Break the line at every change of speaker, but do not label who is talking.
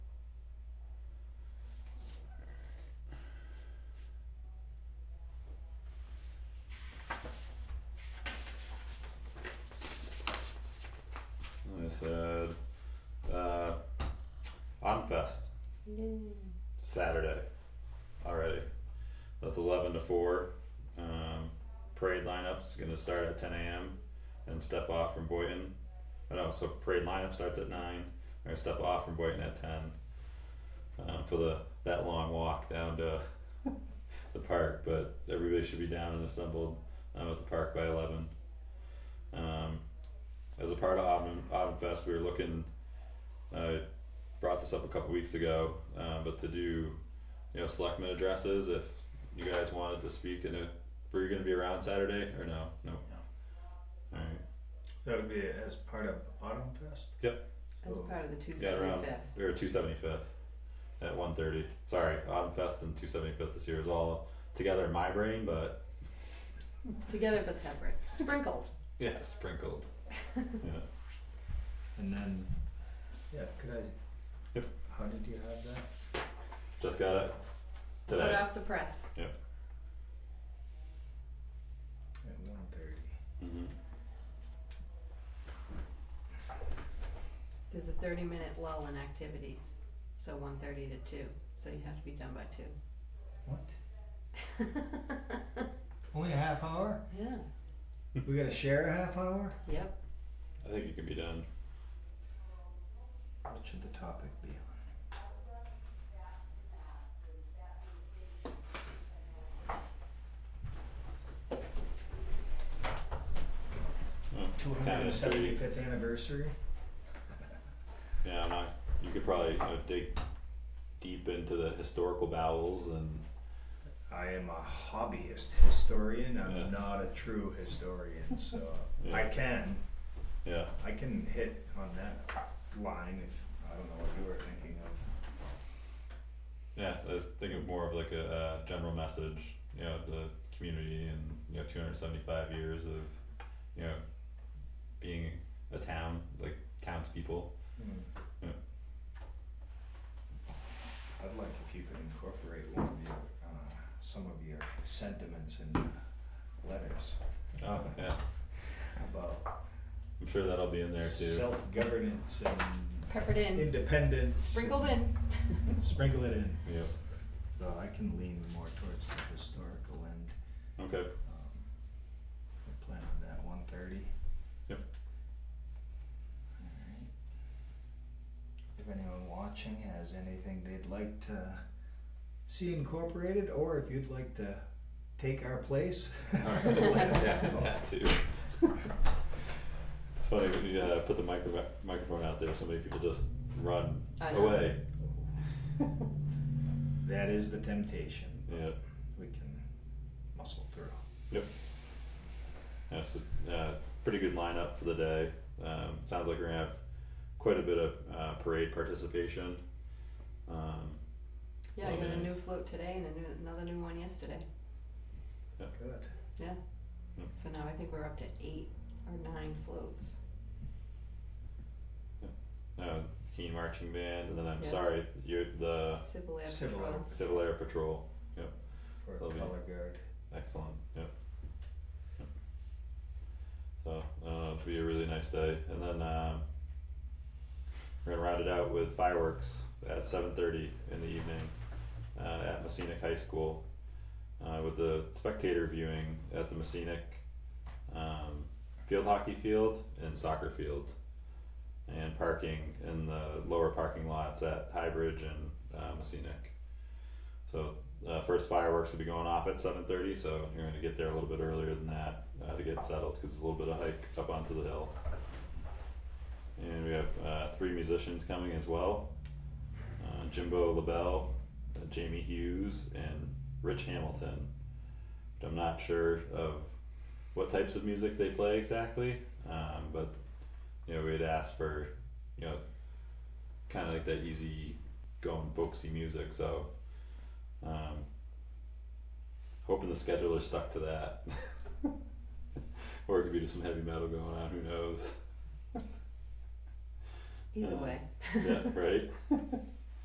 said uh, Onfest Saturday already. That's 11 to 4. Um, parade lineup's going to start at 10 a.m. and step off from Boynton. I know, so parade lineup starts at 9. We're going to step off from Boynton at 10 um, for the that long walk down to the park. But everybody should be down and assembled um, at the park by 11. Um, as a part of Autumn, Autumn Fest, we were looking. uh, I brought this up a couple weeks ago, um, but to do, you know, selectmen addresses. If you guys wanted to speak in a, were you going to be around Saturday or no? No. All right.
So that would be as part of Autumn Fest?
As part of the two
Yeah, Oh, around.
seventy-fifth.
We were two seventy fifth at one thirty. Sorry, Autumn Fest and two seventy fifth this year is all together in my brain, but
Together but separate. Sprinkled.
yeah, sprinkled. yeah.
And then
Yeah, could I?
Yep.
How did you have that?
Just got it today.
Hot off the press.
At one thirty.
Mhm.
There's a thirty minute lull in activities. So one thirty to two. So you have to be done by two.
What? Only a half hour?
Yeah.
We gotta share a half hour?
Yep.
I think you can be done.
What should the topic be on?
Mm,
Two
10
hundred and
is pretty-
seventy-fifth anniversary?
Yeah, I'm not. You could probably you know, dig deep into the historical bowels and
I am a hobbyist historian,
Yes.
I'm not a true historian, so
Yeah.
I can,
yeah,
I can hit on that line if, I don't know what you were thinking of.
yeah. I was thinking more of like a uh, general message, you know, the community and you know, 275 years of you know being a town, like townspeople.
Hmm.
Yeah.
I'd like if you could incorporate one of your, uh, some of your sentiments in uh, letters
Oh yeah,
about
I'm sure that'll be in there too.
self-governance and
Peppered in.
independence.
Sprinkled in.
and- Sprinkle it in.
Yeah.
Though I can lean more towards the historical end.
Okay.
Um, we plan on that one thirty.
Yep.
Alright. If anyone watching has anything they'd like to see incorporated, or if you'd like to take our place, let us know.
that too. It's funny when you uh, put the micro- microphone out there, so many people just run
I know.
away.
That is the temptation. but
Yeah.
We can muscle through.
Yeah, so, uh, pretty good lineup for the day. Um, sounds like we're gonna have quite a bit of uh, parade participation. Um,
Yeah, I got a new
Nice.
float today and a new, another new one yesterday.
Good.
So now I think we're up to eight or nine floats.
uh, Keen marching band, and then I'm
Yeah.
sorry, you're the
Civil Air
Civil
Patrol.
Air.
Civil Air Patrol.
For
Lovely.
color guard.
Excellent. Yep. Yep. So I don't know, it'll be a really nice day, and then um, we're gonna round it out with fireworks at seven thirty in the evening uh, at Messinic High School uh, with the spectator viewing at the Messinic um, field hockey field and soccer field, and parking in the lower parking lots at Highbridge and uh, Messinic. So uh, first fireworks will be going off at seven thirty, so you're gonna get there a little bit earlier than that uh, to get settled because it's a little bit of hike up onto the hill. And we have uh, three musicians coming as well: uh, Jimbo LaBelle, uh, Jamie Hughes, and Rich Hamilton. But I'm not sure of what types of music they play exactly, um, but you know we had asked for you know kind of like that easy going folksy music, so. Um, hoping the scheduler stuck to that. or it could be just some heavy metal going on, who knows?
Either
Uh,
way.
Yeah, right?